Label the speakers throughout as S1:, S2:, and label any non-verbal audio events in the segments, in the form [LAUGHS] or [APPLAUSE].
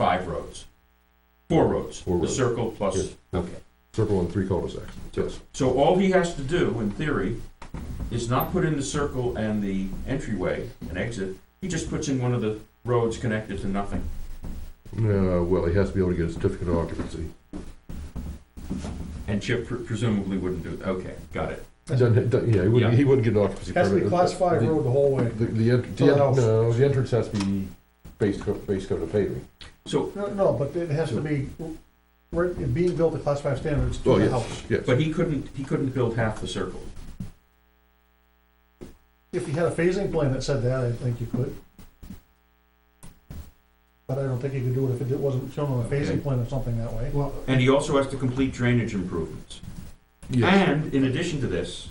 S1: five roads, four roads,
S2: Four
S1: the
S2: roads.
S1: circle plus.
S2: Okay. Circle and three cul-de-sacs, yes.
S1: So all he has to do, in theory, is not put in the circle and the entryway and exit. He just puts in one of the roads connected to nothing.
S2: Uh, well, he has to be able to get a certificate of occupancy.
S1: And Chip pre- presumably wouldn't do, it. okay, got it.
S2: Doesn't- doesn't- Yeah, he
S1: Yeah.
S2: wouldn't, he wouldn't get an occupancy permit.
S3: Has to be class five
S2: The-
S3: road the whole way.
S2: The, the, ent- the,
S3: Something
S2: en-
S3: else.
S2: no, the entrance has to be base coat, base coat of paving.
S1: So,
S3: No, no, but it has to be, we're being built to class five standards
S2: Oh,
S3: to the
S2: yes,
S3: house.
S2: yes.
S1: but he couldn't, he couldn't build half the circle.
S3: If you had a phasing plan that said that, I think you could. But I don't think you could do it if it wasn't shown on a
S1: Okay.
S3: phasing plan or something that way.
S4: Well,
S1: And he also has to complete drainage improvements.
S2: Yes.
S1: And in addition to this,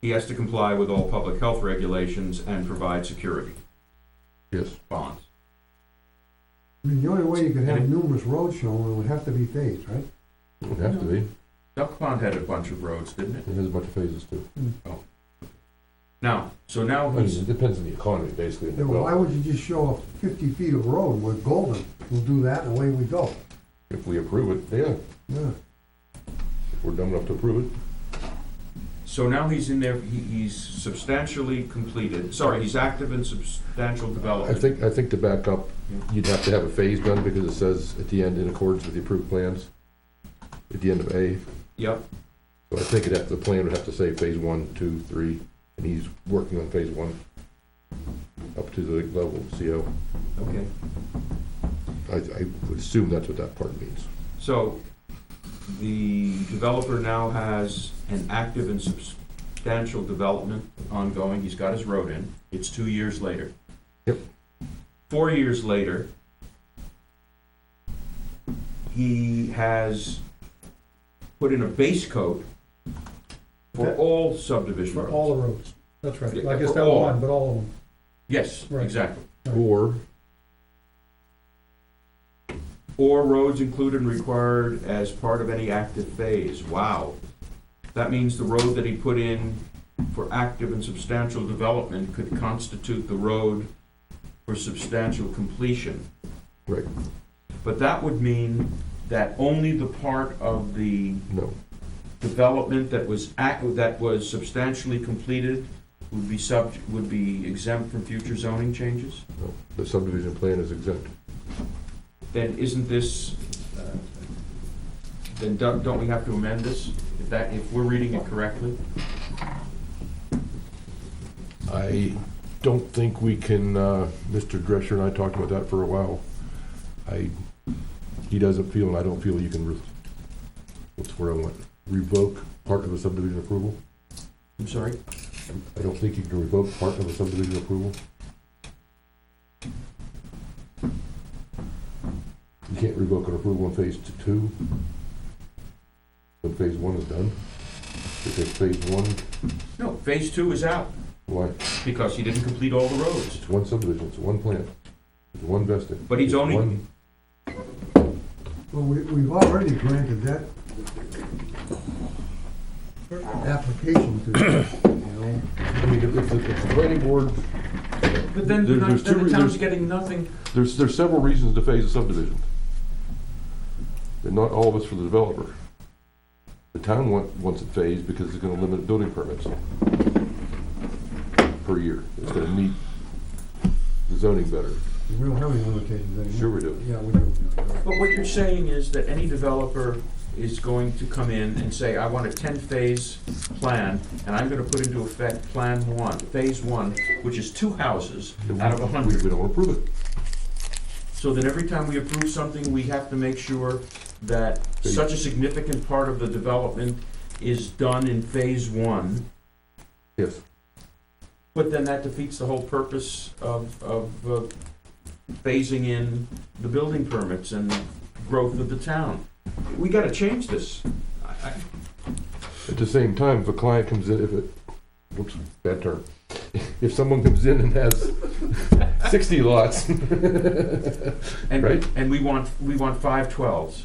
S1: he has to comply with all public health regulations and provide security
S2: Yes.
S1: bonds.
S4: I mean, the only way you could have numerous roads shown, it would have to be phased, right?
S2: It would have to be.
S1: Duck Pond had a bunch of roads, didn't it?
S2: It has a bunch of phases too.
S1: Now, so now
S2: I mean,
S1: he's,
S2: it depends on the economy, basically. and the
S4: Then why
S2: wealth.
S4: would you just show fifty feet of road, we're golden, we'll do that and away we go?
S2: If we approve it, yeah,
S4: Yeah,
S2: if we're dumb enough to approve it.
S1: so now he's in there, he, he's substantially completed, sorry, he's active in substantial
S2: I
S1: development.
S2: think, I think to back up, you'd have to have a phase done because it says at the end, in accordance with the approved plans, at the end of A.
S1: Yep,
S2: So I think it, the plan would have to say phase one, two, three, and he's working on phase one up to the level of CO.
S1: okay.
S2: I, I would assume that's what that part means.
S1: So the developer now has an active and substantial development ongoing. He's got his road in. It's two years later.
S2: Yep.
S1: Four years later, he has put in a base coat for
S3: That-
S1: all subdivision
S3: For
S1: roads.
S3: all the roads, that's right.
S1: Yeah,
S3: I guess
S1: for
S3: that
S1: all.
S3: one, but all of them.
S1: Yes,
S3: Right.
S1: exactly.
S2: Or,
S1: Or roads included and required as part of any active phase. Wow. That means the road that he put in for active and substantial development could constitute the road for substantial completion.
S2: right,
S1: But that would mean that only the part of the
S2: no,
S1: development that was act, that was substantially completed would be sub, would be exempt from future zoning changes?
S2: no, the subdivision plan is exempt.
S1: then isn't this, uh, then don't, don't we have to amend this? If that, if we're reading it correctly?
S2: I don't think we can, uh, Mr. Drescher and I talked about that for a while. I, he doesn't feel, and I don't feel you can, re- what's where I went, revoke part of a subdivision approval?
S1: I'm sorry?
S2: I don't think you can revoke part of a subdivision approval. You can't revoke an approval in phase t- two. When phase one is done. Because phase one,
S1: No, phase two is out
S2: why,
S1: because he didn't complete all the roads.
S2: it's one subdivision, it's one plant, it's one vesting.
S1: But he's
S2: it's
S1: only-
S2: one-
S4: well, we, we've already granted that application to, you know,
S2: I mean, if, if the if the planning board,
S1: But then,
S2: There-
S1: the
S2: there's two
S1: then the town's
S2: reasons.
S1: getting nothing.
S2: there's, there's several reasons to phase a subdivision. And not all of it's for the developer. The town want, wants it phased because it's gonna limit building permits per year. It's gonna meet the zoning better.
S4: we don't have any limitations anymore.
S2: Sure we do.
S4: Yeah, we do.
S1: But what you're saying is that any developer is going to come in and say, I want a ten-phase plan, and I'm gonna put into effect plan one, phase one, which is two houses out of a hundred.
S2: We don't approve it.
S1: So then every time we approve something, we have to make sure that such a significant part of the development is done in phase one,
S2: Yes.
S1: but then that defeats the whole purpose of, of uh, phasing in the building permits and growth of the town. We gotta change this. I- I-
S2: At the same time, if a client comes in, if it, whoops, bad term. [LAUGHS] If someone comes in and has sixty lots, [LAUGHS]
S1: And,
S2: Right.
S1: and we want, we want five twelves,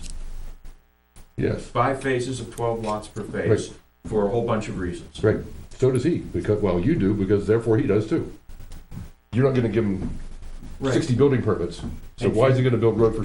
S2: yes,
S1: five phases of twelve lots per phase, for a whole bunch of reasons.
S2: Right. so does he, because, well, you do, because therefore he does too. You're not gonna give him
S1: Right.
S2: sixty building permits. So
S1: And
S2: why is he gonna build road for